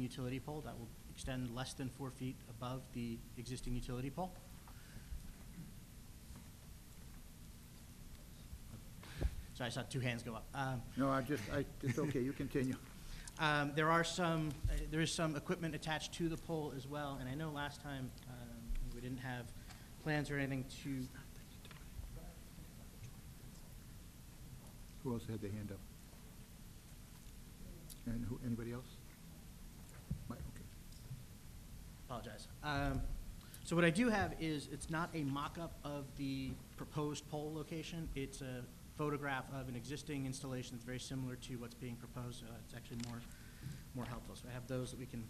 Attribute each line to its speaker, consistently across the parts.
Speaker 1: utility pole that will extend less than four feet above the existing utility pole. Sorry, I saw two hands go up. Um,
Speaker 2: No, I just, I, it's okay, you continue.
Speaker 1: um, There are some, uh, there is some equipment attached to the pole as well, and I know last time um, we didn't have plans or anything to,
Speaker 2: Who else had their hand up? And who, anybody else? Mike, okay.
Speaker 1: apologize. Um, So what I do have is, it's not a mock-up of the proposed pole location. It's a photograph of an existing installation that's very similar to what's being proposed. so It's actually more, more helpful. So I have those that we can,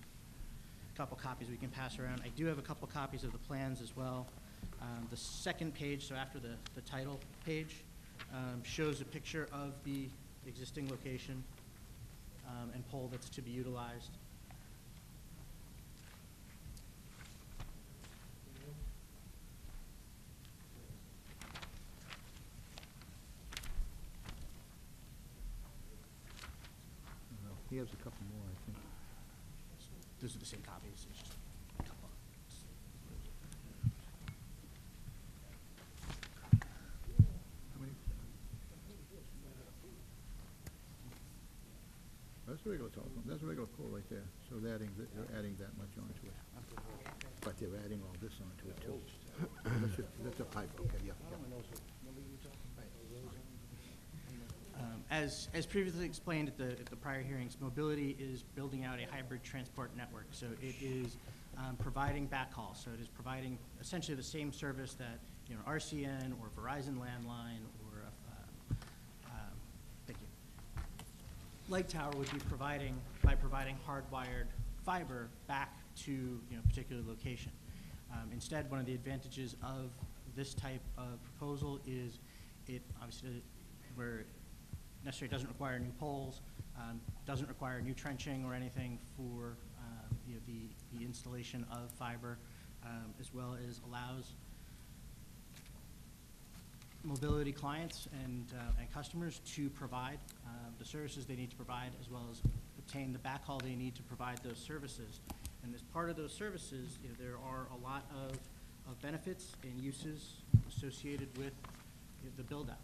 Speaker 1: a couple copies we can pass around. I do have a couple copies of the plans as well. Um, The second page, so after the, the title page, um, shows a picture of the existing location um, and pole that's to be utilized.
Speaker 2: Uh, He has a couple more, I think.
Speaker 1: Those are the same copies, it's just a couple.
Speaker 2: How many? That's a regular telephone, that's a regular pole right there, so they're adding, th- they're adding that much onto it. But they're adding all this onto it too. That's a- That's a pipe, okay, yeah, yeah.
Speaker 1: Um, As, as previously explained at the, at the prior hearings, mobility is building out a hybrid transport network. So it is um, providing backhaul, so it is providing essentially the same service that, you know, RCN or Verizon landline or, uh, um, thank you, Light Tower would be providing, by providing hardwired fiber back to, you know, a particular location. Um, Instead, one of the advantages of this type of proposal is it obviously, where necessarily doesn't require new poles, um, doesn't require new trenching or anything for, um, you know, the, the installation of fiber, um, as well as allows mobility clients and, uh, and customers to provide uh, the services they need to provide, as well as obtain the backhaul they need to provide those services. And as part of those services, you know, there are a lot of, of benefits and uses associated with you know, the build-out.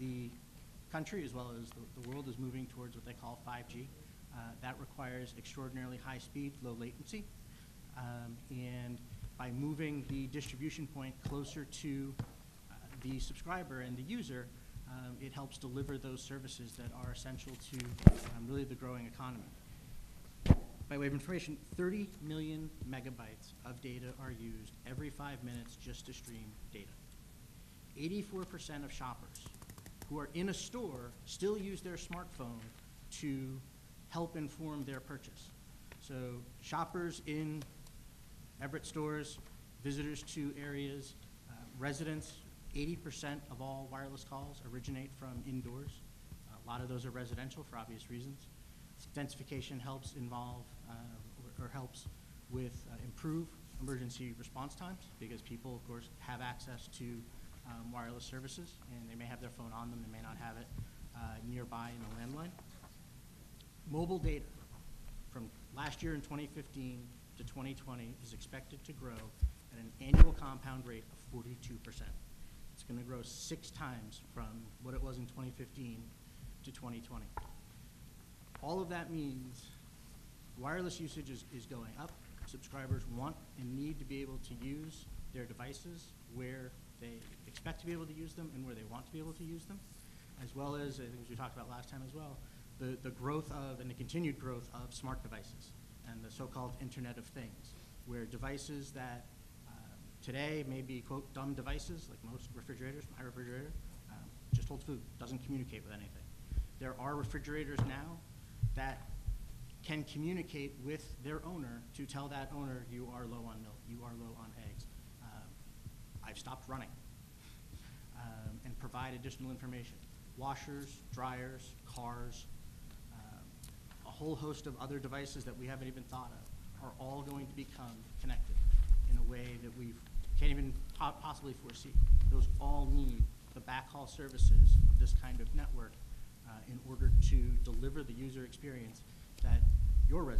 Speaker 1: The country, as well as the, the world, is moving towards what they call 5G. Uh, That requires extraordinarily high speed, low latency. Um, And by moving the distribution point closer to uh, the subscriber and the user, um, it helps deliver those services that are essential to um, really the growing economy. By way of information, 30 million megabytes of data are used every five minutes just to stream data. 84% of shoppers who are in a store still use their smartphone to help inform their purchase. So shoppers in Everett stores, visitors to areas, uh, residents, 80% of all wireless calls originate from indoors. A lot of those are residential for obvious reasons. Densification helps involve, uh, or- or helps with, uh, improve emergency response times because people, of course, have access to um, wireless services and they may have their phone on them, they may not have it uh, nearby in a landline. Mobile data from last year in 2015 to 2020 is expected to grow at an annual compound rate of 42%. It's going to grow six times from what it was in 2015 to 2020. All of that means wireless usage is, is going up. Subscribers want and need to be able to use their devices where they expect to be able to use them and where they want to be able to use them, as well as, I think as we talked about last time as well, the, the growth of and the continued growth of smart devices and the so-called Internet of Things, where devices that um, today may be quote dumb devices, like most refrigerators, my refrigerator, um, just holds food, doesn't communicate with anything. There are refrigerators now that can communicate with their owner to tell that owner, you are low on milk, you are low on eggs. Um, I've stopped running, um, and provide additional information. Washers, dryers, cars, um, a whole host of other devices that we haven't even thought of are all going to become connected in a way that we can't even po- possibly foresee. Those all need the backhaul services of this kind of network uh, in order to deliver the user experience that your residents